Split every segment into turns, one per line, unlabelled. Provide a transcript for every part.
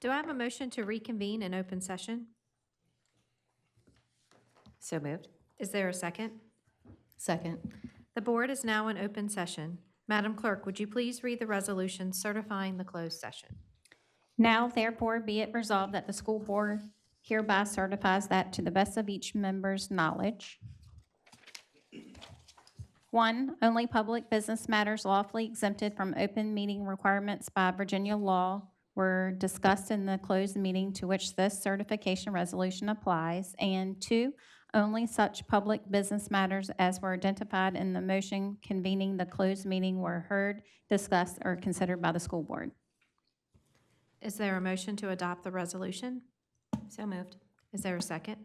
Do I have a motion to reconvene in open session?
So moved.
Is there a second?
Second.
The board is now in open session. Madam Clerk, would you please read the resolution certifying the closed session?
Now therefore be it resolved that the school board hereby certifies that to the best of each member's knowledge. One, only public business matters lawfully exempted from open meeting requirements by Virginia law were discussed in the closed meeting to which this certification resolution applies. And two, only such public business matters as were identified in the motion convening the closed meeting were heard, discussed, or considered by the school board.
Is there a motion to adopt the resolution?
So moved.
Is there a second?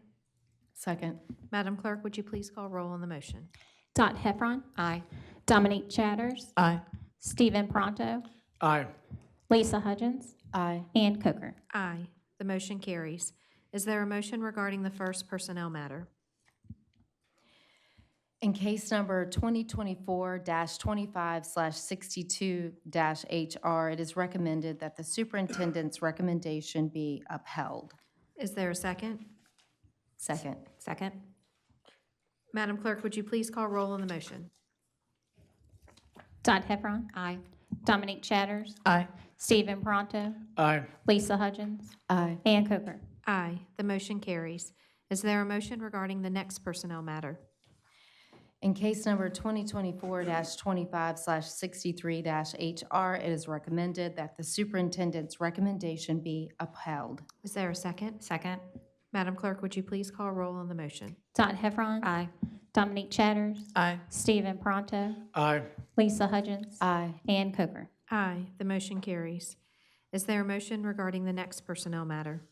Second.
Madam Clerk, would you please call roll on the motion?
Dot Heffron.
Aye.
Dominique Chatters.
Aye.
Stephen Pronto.
Aye.
Lisa Hudgens.
Aye.
Ann Coker.
Aye. The motion carries. Is there a motion regarding the first personnel matter?
In case number 2024-25/62-HR, it is recommended that the superintendent's recommendation be upheld.
Is there a second?
Second.
Second. Madam Clerk, would you please call roll on the motion?
Dot Heffron.
Aye.
Dominique Chatters.
Aye.
Stephen Pronto.
Aye.
Lisa Hudgens.
Aye.
Ann Coker.
Aye. The motion carries. Is there a motion regarding the next personnel matter?
In case number 2024-25/63-HR, it is recommended that the superintendent's recommendation be upheld.
Is there a second?
Second.
Madam Clerk, would you please call roll on the motion?
Dot Heffron.
Aye.
Dominique Chatters.
Aye.
Stephen Pronto.
Aye.
Lisa Hudgens.
Aye.
Ann Coker.
Aye. The motion carries. Is there a motion regarding the next personnel matter?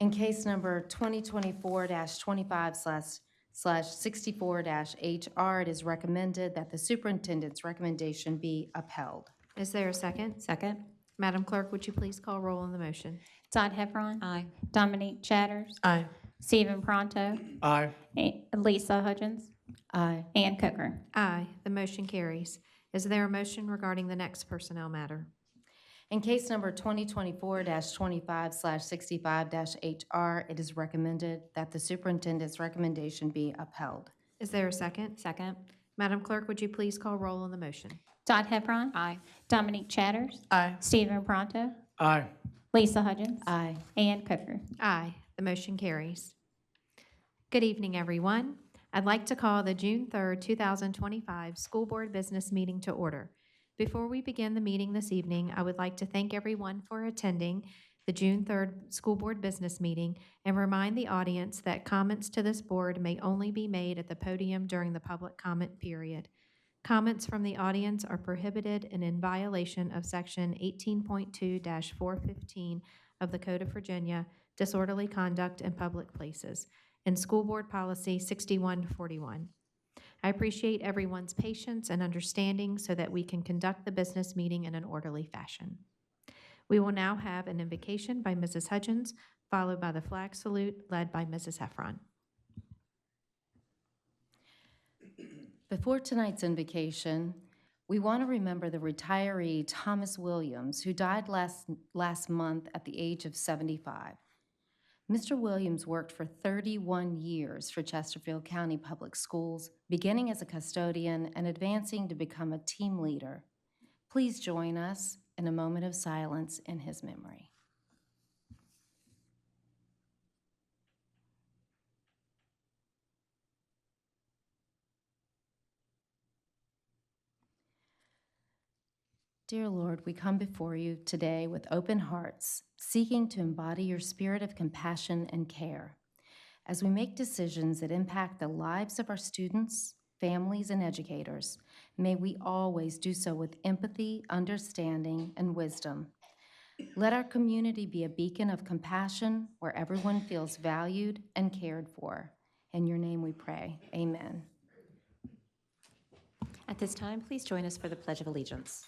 In case number 2024-25/64-HR, it is recommended that the superintendent's recommendation be upheld.
Is there a second?
Second.
Madam Clerk, would you please call roll on the motion?
Dot Heffron.
Aye.
Dominique Chatters.
Aye.
Stephen Pronto.
Aye.
A- Lisa Hudgens.
Aye.
Ann Coker.
Aye. The motion carries. Is there a motion regarding the next personnel matter?
In case number 2024-25/65-HR, it is recommended that the superintendent's recommendation be upheld.
Is there a second?
Second.
Madam Clerk, would you please call roll on the motion?
Dot Heffron.
Aye.
Dominique Chatters.
Aye.
Stephen Pronto.
Aye.
Lisa Hudgens.
Aye.
Ann Coker.
Aye, the motion carries. Good evening, everyone. I'd like to call the June 3rd, 2025 School Board Business Meeting to order. Before we begin the meeting this evening, I would like to thank everyone for attending the June 3rd School Board Business Meeting and remind the audience that comments to this board may only be made at the podium during the public comment period. Comments from the audience are prohibited and in violation of Section 18.2-415 of the Code of Virginia disorderly conduct in public places, and School Board Policy 6141. I appreciate everyone's patience and understanding so that we can conduct the business meeting in an orderly fashion. We will now have an invocation by Mrs. Hudgens, followed by the flag salute led by Mrs. Heffron.
Before tonight's invocation, we want to remember the retiree Thomas Williams, who died last, last month at the age of 75. Mr. Williams worked for 31 years for Chesterfield County Public Schools, beginning as a custodian and advancing to become a team leader. Please join us in a moment of silence in his memory. Dear Lord, we come before you today with open hearts, seeking to embody your spirit of compassion and care. As we make decisions that impact the lives of our students, families, and educators, may we always do so with empathy, understanding, and wisdom. Let our community be a beacon of compassion where everyone feels valued and cared for. In your name we pray. Amen.
At this time, please join us for the Pledge of Allegiance.